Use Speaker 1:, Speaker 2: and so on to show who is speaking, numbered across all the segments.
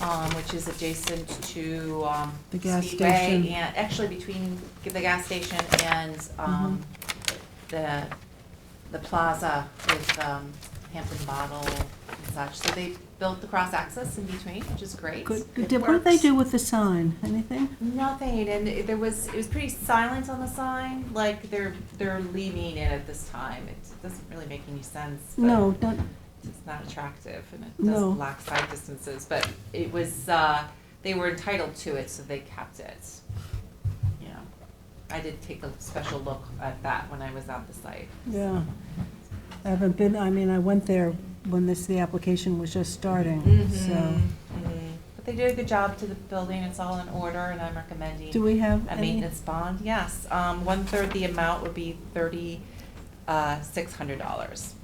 Speaker 1: um, which is adjacent to, um,
Speaker 2: The gas
Speaker 1: Speedway
Speaker 2: station. Mm-hmm.
Speaker 1: And, actually between the gas station and, um, the, the plaza with, um, Hampton Bottle and such. So they built the cross access in between, which is great.
Speaker 2: Good.
Speaker 1: It
Speaker 2: Did- What did they
Speaker 1: works.
Speaker 2: do with the sign? Anything?
Speaker 1: Nothing, and it- there was, it was pretty silent on the sign, like they're, they're leaning in at this time. It doesn't really make any sense. but
Speaker 2: No, not,
Speaker 1: It's not attractive and it
Speaker 2: No.
Speaker 1: does lack side distances, but it was, uh, they were entitled to it, so they kept it. You know, I did take a special look at that when I was at the site.
Speaker 2: yeah. I haven't been, I mean, I went there when this, the application was just starting, Mm-hmm. so.
Speaker 1: Mhm, mhm. But they did a good job to the building, it's all in order and I'm recommending.
Speaker 2: Do we have
Speaker 1: A
Speaker 2: any?
Speaker 1: maintenance bond, yes. Um, one-third the amount would be thirty, uh, six hundred dollars.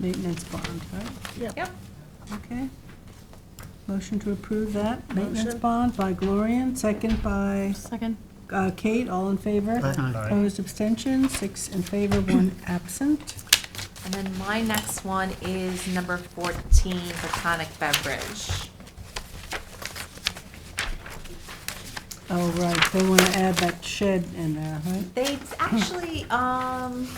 Speaker 2: Maintenance bond, right?
Speaker 1: Yep.
Speaker 2: Okay. Motion to approve that, maintenance
Speaker 3: Motion.
Speaker 2: bond by Gloria, and second by
Speaker 3: Second.
Speaker 2: uh, Kate, all in favor?
Speaker 4: Aye.
Speaker 2: Opposed, abstentions, six in favor, one absent.
Speaker 1: And then my next one is number fourteen, Botanic Beverage.
Speaker 2: Oh, right, they want to add that shed in there, right?
Speaker 1: They
Speaker 2: Hmm.
Speaker 1: actually, um,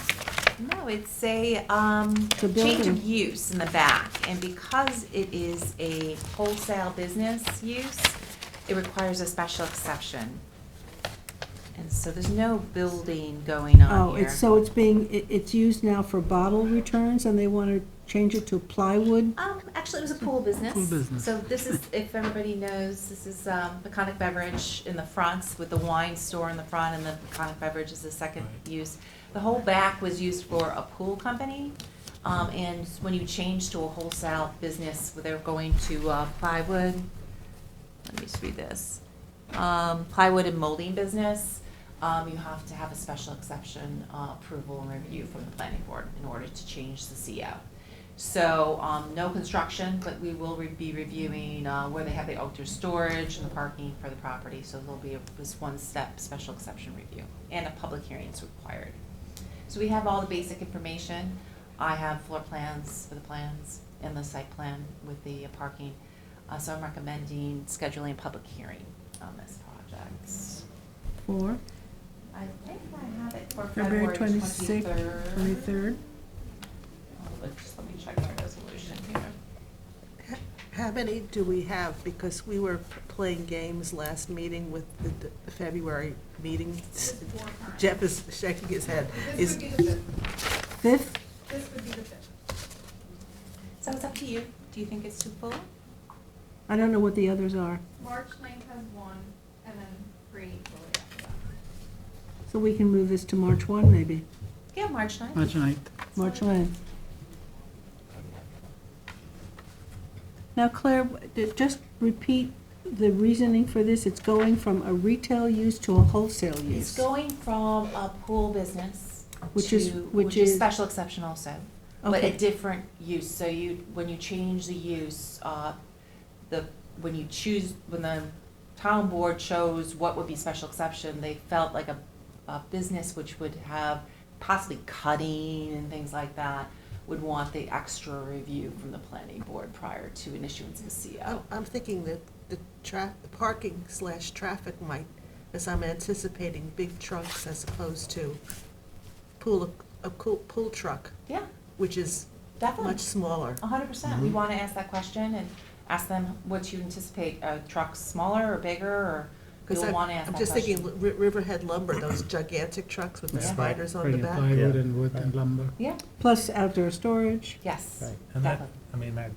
Speaker 1: no, it's a, um,
Speaker 2: a
Speaker 1: change of
Speaker 2: building.
Speaker 1: use in the back. And because it is a wholesale business use, it requires a special exception. And so there's no building going on
Speaker 2: Oh,
Speaker 1: here.
Speaker 2: it's, so it's being, it- it's used now for bottle returns, and they want to change it to plywood?
Speaker 1: Um, actually, it was a pool business.
Speaker 4: Pool business.
Speaker 1: So this is, if everybody knows, this is um, Peconic Beverage in the front with the wine store in the front, and the Peconic Beverage is the second use. The whole back was used for a pool company, um, and when you change to a wholesale business, where they're going to uh, plywood. Let me just read this. Um, plywood and molding business. Um, you have to have a special exception uh, approval and review from the planning board in order to change the CO. So, um, no construction, but we will re- be reviewing, uh, where they have the outdoor storage and the parking for the property, so there'll be a, this one-step special exception review, and a public hearing is required. So we have all the basic information, I have floor plans for the plans, and the site plan with the uh, parking, uh, so I'm recommending scheduling a public hearing on this project.
Speaker 2: Or
Speaker 1: I think I have it for
Speaker 2: February
Speaker 1: February twenty-third.
Speaker 2: twenty-sixth, twenty-third?
Speaker 1: Just let me check my resolution here.
Speaker 3: How many do we have? Because we were p- playing games last meeting with the d- the February meeting. Jeff is shaking his head.
Speaker 5: This
Speaker 3: Is
Speaker 5: would be the fifth,
Speaker 2: Fifth?
Speaker 5: this would be the fifth.
Speaker 1: So it's up to you. Do you think it's too full?
Speaker 2: I don't know what the others are,
Speaker 5: March ninth has one, and then three equally after that.
Speaker 2: so we can move this to March one, maybe,
Speaker 1: Yeah, March ninth.
Speaker 4: March ninth.
Speaker 2: March one. Now, Claire, w- d- just repeat the reasoning for this, it's going from a retail use to a wholesale
Speaker 1: It's
Speaker 2: use.
Speaker 1: going from a pool business
Speaker 2: Which
Speaker 1: to,
Speaker 2: is- which
Speaker 1: which is
Speaker 2: is-
Speaker 1: special exception also, but a
Speaker 2: Okay.
Speaker 1: different use. So you, when you change the use, uh, the, when you choose, when the town board chose what would be special exception, they felt like a, a business which would have possibly cutting and things like that would want the extra review from the planning board prior to an issuance of a
Speaker 3: I'm
Speaker 1: CO.
Speaker 3: I'm thinking that the tra, the parking slash traffic might, as I'm anticipating big trucks as opposed to pool, a cool, pool truck,
Speaker 1: Yeah,
Speaker 3: which is
Speaker 1: definitely.
Speaker 3: much smaller.
Speaker 1: A hundred percent.
Speaker 6: Mm-hmm.
Speaker 1: We want to ask that question and ask them, what you anticipate, a truck smaller or bigger, or
Speaker 3: Because
Speaker 1: you'll
Speaker 3: I'm
Speaker 1: want to ask
Speaker 3: I'm
Speaker 1: that
Speaker 3: just
Speaker 1: question.
Speaker 3: thinking Ri- Riverhead lumber, those gigantic trucks with the
Speaker 1: Yeah.
Speaker 3: spiders on the
Speaker 4: Bringing
Speaker 3: back.
Speaker 4: Plywood and wood and lumber.
Speaker 1: Yeah,
Speaker 2: Plus outdoor storage,
Speaker 1: yes,
Speaker 6: Right, and that,
Speaker 1: Definitely.
Speaker 6: I mean, I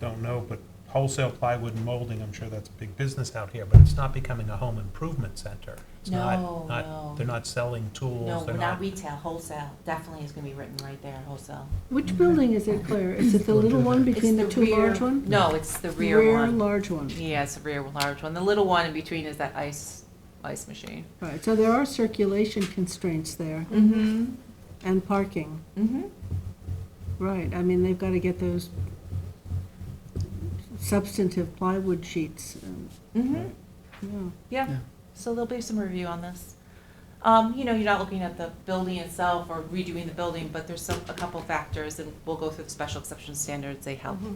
Speaker 6: don't know, but wholesale plywood and molding, I'm sure that's a big business out here, but it's not becoming a home improvement center. It's not-
Speaker 1: No,
Speaker 6: not-
Speaker 1: no.
Speaker 6: They're not selling tools,
Speaker 1: No,
Speaker 6: they're
Speaker 1: we're not
Speaker 6: not,
Speaker 1: retail, wholesale, definitely is gonna be written right there, wholesale.
Speaker 2: which building is it, Claire? Is it the
Speaker 4: Don't
Speaker 2: little
Speaker 4: do
Speaker 2: one
Speaker 4: that.
Speaker 2: between the
Speaker 1: It's
Speaker 2: two large
Speaker 1: rear-
Speaker 2: ones?
Speaker 1: No, it's the rear one.
Speaker 2: large one.
Speaker 1: Yeah, it's the rear large one. The little one in between is that ice, ice machine.
Speaker 2: Right, so there are circulation constraints there,
Speaker 1: Mm-hmm.
Speaker 2: and parking,
Speaker 1: Mm-hmm.
Speaker 2: right, I mean, they've gotta get those substantive plywood sheets, um,
Speaker 1: Mm-hmm.
Speaker 2: yeah.
Speaker 1: Yeah,
Speaker 4: Yeah.
Speaker 1: so there'll be some review on this. Um, you know, you're not looking at the building itself or redoing the building, but there's some, a couple factors, and we'll go through the special exception standards, they help
Speaker 3: Mhm.